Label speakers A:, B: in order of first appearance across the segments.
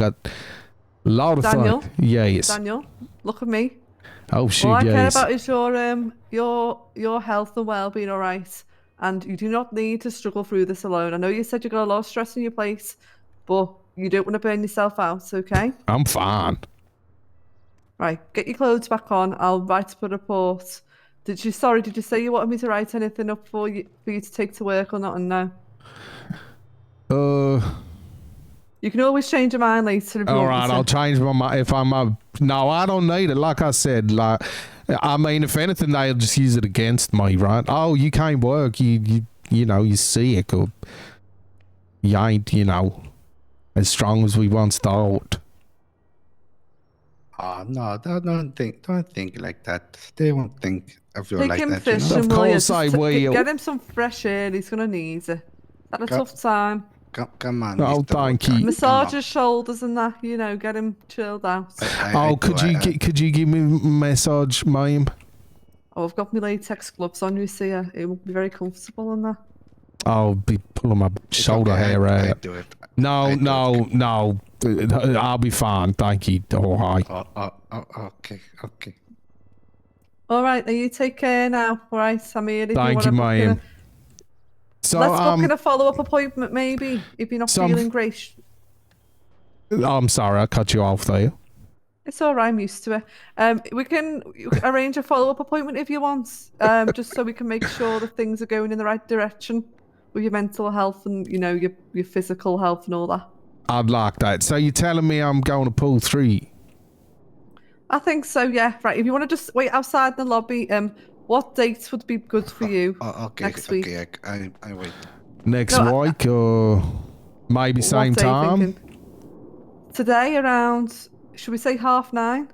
A: got a lot of
B: Daniel?
A: fun. Yeah, yes.
B: Daniel, look at me.
A: Oh shoot,
B: All I
A: yeah,
B: care
A: yes.
B: about is your um your your health and well being all right. And you do not need to struggle through this alone. I know you said you got a lot of stress in your place, but you don't want to burn yourself out, okay?
A: I'm fine.
B: Right, get your clothes back on. I'll write up a report. Did you sorry, did you say you wanted me to write anything up for you for you to take to work or not? And no.
A: Uh,
B: You can always change your mind later if you
A: all
B: want
A: right,
B: to.
A: I'll change my mind if I'm up. No, I don't need it. Like I said, like I mean, if anything, they'll just use it against me, right? Oh, you can't work. You you you know you're sick or you ain't you know as strong as we once thought.
C: Oh no, don't, don't think don't think like that. They won't think of you
B: Take
C: like
B: him
C: that.
B: fishing,
C: You know?
A: Of
B: will you?
A: course
B: Just
A: I
B: to-
A: will.
B: Get him some fresh air. He's gonna need it. Had a
C: Go-
B: tough time.
C: Come, come on.
A: Oh,
C: Mr.
A: thank
C: Walker,
A: you.
C: come
B: Massage
C: on.
B: his shoulders and that. You know, get him chilled out.
C: I- I
A: Oh,
C: do,
A: could you
C: I-
A: gi- could you give me a massage, ma'am?
B: Oh, I've got my latex gloves on. You see, uh, it will be very comfortable in that.
A: I'll be pulling my
C: It's
A: shoulder
C: okay, I-
A: hair
C: I,
A: out.
C: do it.
A: No,
C: I do
A: no, no. Uh, I'll be fine. Thank you. All right.
C: Oh, oh, oh, okay, okay.
B: All right, now you take care now. All right, I'm here. If
A: Thank you,
B: you, want to
A: ma'am. So,
B: Let's book
A: um,
B: in a follow-up appointment, maybe, if you're not
A: Some-
B: feeling great.
A: I'm sorry, I cut you off there.
B: It's all right. I'm used to it. Um, we can you can arrange a follow-up appointment if you want. Um, just so we can make sure that things are going in the right direction with your mental health and you know your your physical health and all that.
A: I'd like that. So you're telling me I'm going to pull three?
B: I think so. Yeah. Right. If you want to just wait outside the lobby, um, what dates would be good for you?
A: Uh,
C: Oh, okay,
B: Next
C: okay.
B: week.
C: I, I, I wait.
A: next
B: No, I-
A: week or maybe same
B: what day you
A: time?
B: thinking? Today around, should we say half nine?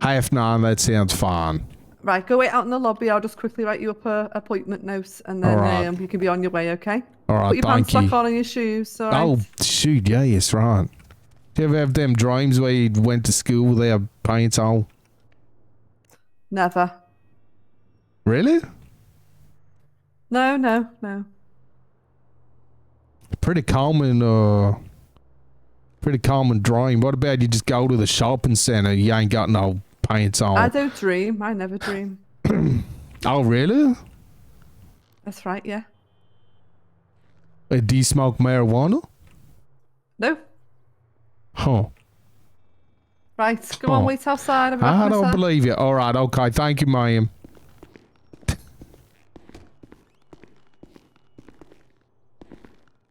A: Half nine. That sounds fine.
B: Right, go wait out in the lobby. I'll just quickly write you up a appointment note, and then
A: Alright.
B: um, you can be on your way. Okay.
A: All right.
B: Put your
A: thank
B: pants back
A: you.
B: on and your shoes. All right.
A: Oh shoot! Yeah, yes, right. You ever have them dreams where you went to school with their pants on?
B: Never.
A: Really?
B: No, no, no.
A: Pretty common. Uh, pretty common dream. What about you just go to the shopping center? You ain't got no pants on.
B: I don't dream. I never dream.
A: oh really?
B: That's right. Yeah.
A: Uh, do you smoke marijuana?
B: No.
A: Huh.
B: Right. Go on.
A: Oh.
B: Wait outside. I'll be back
A: I
B: in a
A: don't
B: sec.
A: believe you. All right, okay. Thank you, ma'am.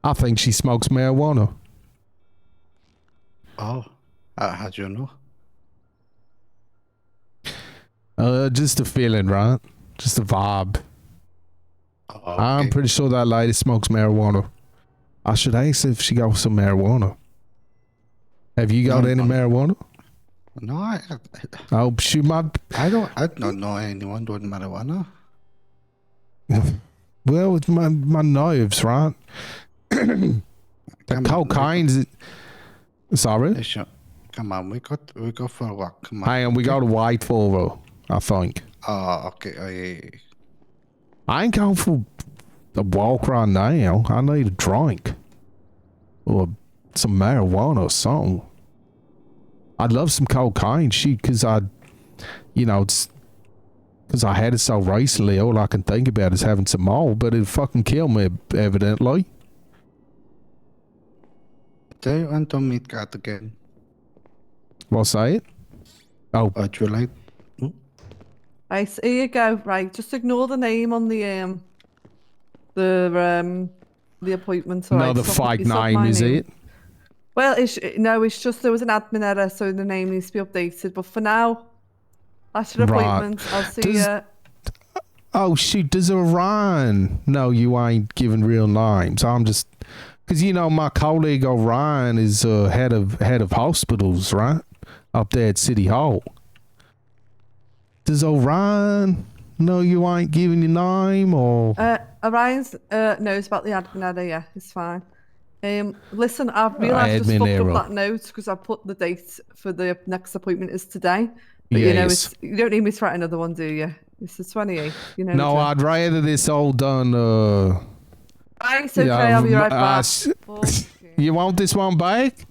A: I think she smokes marijuana.
C: Oh, uh, how do you know?
A: Uh, just a feeling, right? Just a vibe.
C: Oh,
A: I'm
C: okay.
A: pretty sure that lady smokes marijuana. I should ask if she got some marijuana. Have you got
C: No,
A: any
C: no.
A: marijuana?
C: No, I,
A: Oh, she might.
C: I don't, I don't know anyone doing marijuana.
A: Well, it's my my nerves, right? The
C: Come on, we-
A: cocaine's. Sorry.
C: we should- Come on, we got, we go for a walk. Come on.
A: Hang on, we got to wait for her, I think.
C: Oh, okay. Oh, yeah, yeah.
A: I ain't going for a walk right now. I need a drink. Or some marijuana or something. I'd love some cocaine, shoot, because I, you know, it's. Because I had it so recently, all I can think about is having some more, but it'd fucking kill me, evidently.
C: Do you want to meet God again?
A: What's that? Oh,
C: Or do you like? Hmm?
B: Right, so here you go. Right, just ignore the name on the um, the um, the appointment. all right?
A: another
B: It's not-
A: fake
B: it's not
A: name,
B: my
A: is
B: name.
A: it?
B: Well, it's no, it's just there was an admin error, so the name needs to be updated. But for now, that's your
A: Right.
B: appointment. I'll see
A: Does-
B: you.
A: Oh shoot, does it Orion? No, you ain't giving real names. I'm just because you know my colleague Orion is uh, head of head of hospitals, right? Up there at City Hall. Does Orion? No, you ain't giving your name or
B: Uh, Orion's uh, knows about the admin error. Yeah, it's fine. Um, listen, I've realised I just
A: Uh, admin
B: fucked
A: error.
B: up that note because I put the date for the next appointment is today. But you know,
A: Yes.
B: it's, you don't need me to write another one, do you? It's the 28th. You know. the
A: no.
B: drill.
A: I'd rather this all done. Uh,
B: Right, okay,
A: Yeah,
B: I'll be
A: um,
B: right
A: uh,
B: back.
A: s-
B: Fucking-
A: you want this one back?